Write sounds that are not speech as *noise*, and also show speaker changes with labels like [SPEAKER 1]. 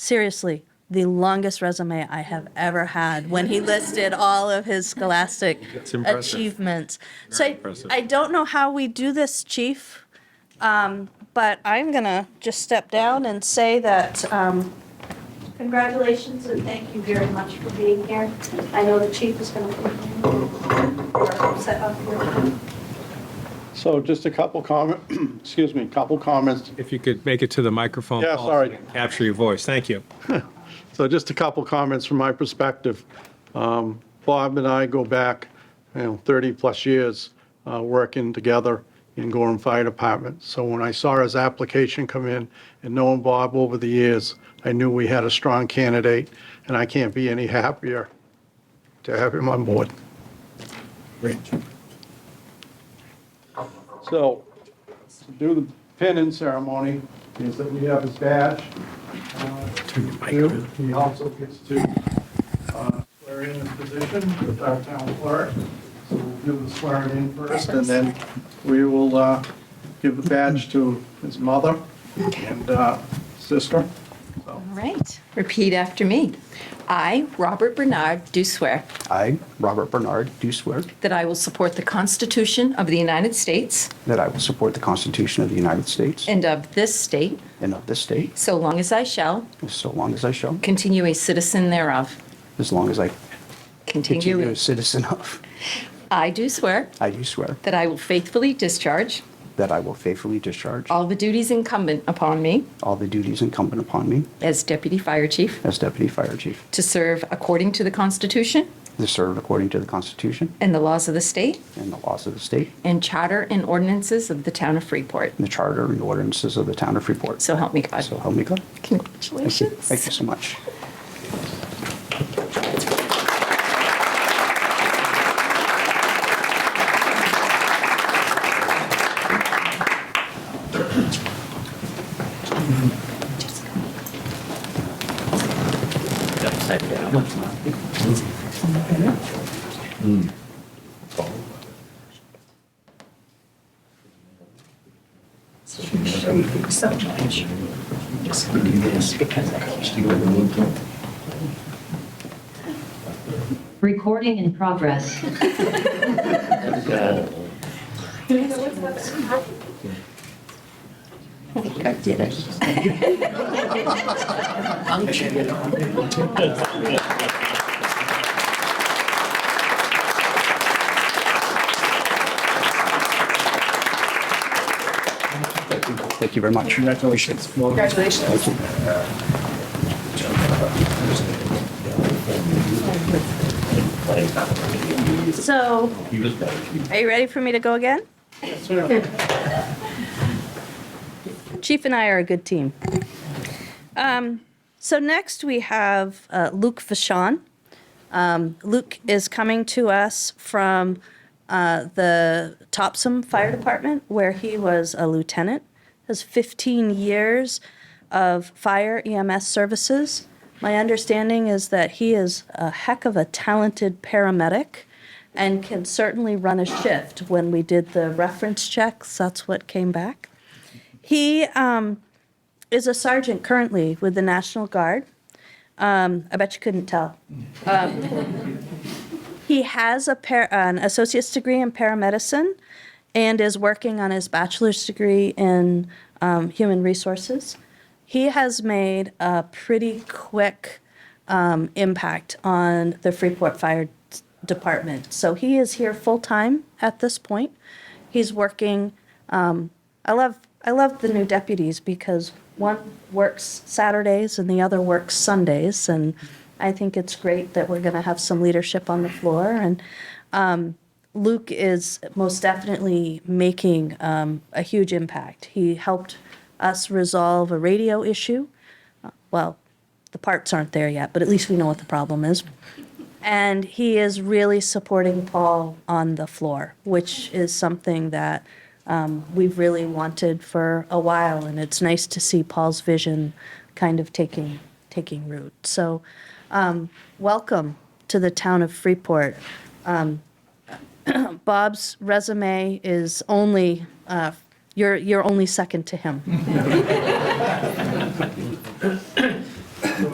[SPEAKER 1] seriously the longest resume I have ever had when he listed all of his scholastic
[SPEAKER 2] It's impressive.
[SPEAKER 1] achievements. So I,
[SPEAKER 2] impressive.
[SPEAKER 1] I don't know how we do this, chief, um, but I'm gonna just step down and say that, um,
[SPEAKER 3] Congratulations and thank you very much for being here. I know the chief is going to be set up here.
[SPEAKER 4] So just a couple comment, *clears throat* excuse me, couple comments.
[SPEAKER 2] If you could make it to the microphone.
[SPEAKER 4] Yeah,
[SPEAKER 2] Paul,
[SPEAKER 4] sorry.
[SPEAKER 2] so we can Capture your voice. Thank you.
[SPEAKER 4] So just a couple comments from my perspective. Um, Bob and I go back, you know, 30-plus years uh, working together in Gorham Fire Department. So when I saw his application come in and knowing Bob over the years, I knew we had a strong candidate, and I can't be any happier to have him on board. So to do the pinning ceremony is that we have his badge. uh, too. He also gets to uh, swear in his position with our town clerk. So we'll do the swearing in first, and then we will uh, give the badge to his mother and uh, sister. So
[SPEAKER 5] All right, repeat after me. I, Robert Bernard, do swear
[SPEAKER 6] I, Robert Bernard, do swear
[SPEAKER 5] that I will support the Constitution of the United States
[SPEAKER 6] that I will support the Constitution of the United States
[SPEAKER 5] and of this state,
[SPEAKER 6] and of this state,
[SPEAKER 5] so long as I shall
[SPEAKER 6] so long as I shall,
[SPEAKER 5] continue a citizen thereof.
[SPEAKER 6] as long as I continue
[SPEAKER 5] Continue.
[SPEAKER 6] a citizen of.
[SPEAKER 5] I do swear
[SPEAKER 6] I do swear
[SPEAKER 5] that I will faithfully discharge
[SPEAKER 6] that I will faithfully discharge
[SPEAKER 5] all the duties incumbent upon me
[SPEAKER 6] all the duties incumbent upon me
[SPEAKER 5] as Deputy Fire Chief
[SPEAKER 6] as Deputy Fire Chief,
[SPEAKER 5] to serve according to the Constitution
[SPEAKER 6] to serve according to the Constitution
[SPEAKER 5] and the laws of the state
[SPEAKER 6] and the laws of the state,
[SPEAKER 5] and charter and ordinances of the town of Freeport.
[SPEAKER 6] and the charter and ordinances of the town of Freeport.
[SPEAKER 5] So help me God.
[SPEAKER 6] So help me God. Thank you.
[SPEAKER 5] Congratulations.
[SPEAKER 6] Thank you so much.
[SPEAKER 7] Recording in progress.
[SPEAKER 6] Thank you very much. Congratulations. Congratulations.
[SPEAKER 1] so, are you ready for me to go again? Chief and I are a good team. Um, so next we have uh, Luke Vachon. Um, Luke is coming to us from uh, the Topsom Fire Department, where he was a lieutenant. Has 15 years of fire EMS services. My understanding is that he is a heck of a talented paramedic and can certainly run a shift. When we did the reference checks, that's what came back. He um, is a sergeant currently with the National Guard. Um, I bet you couldn't tell. Um, he has a par- an associate's degree in paramedicine and is working on his bachelor's degree in um, human resources. He has made a pretty quick um, impact on the Freeport Fire Department. So he is here full time at this point. He's working. I love I love the new deputies because one works Saturdays and the other works Sundays, and I think it's great that we're going to have some leadership on the floor. And um, Luke is most definitely making um, a huge impact. He helped us resolve a radio issue. Uh, Well, the parts aren't there yet, but at least we know what the problem is. And he is really supporting Paul on the floor, which is something that um, we've really wanted for a while. And it's nice to see Paul's vision kind of taking, taking root. So, um, welcome to the town of Freeport. Um, *clears throat* Bob's resume is only, uh, you're, you're only second to him.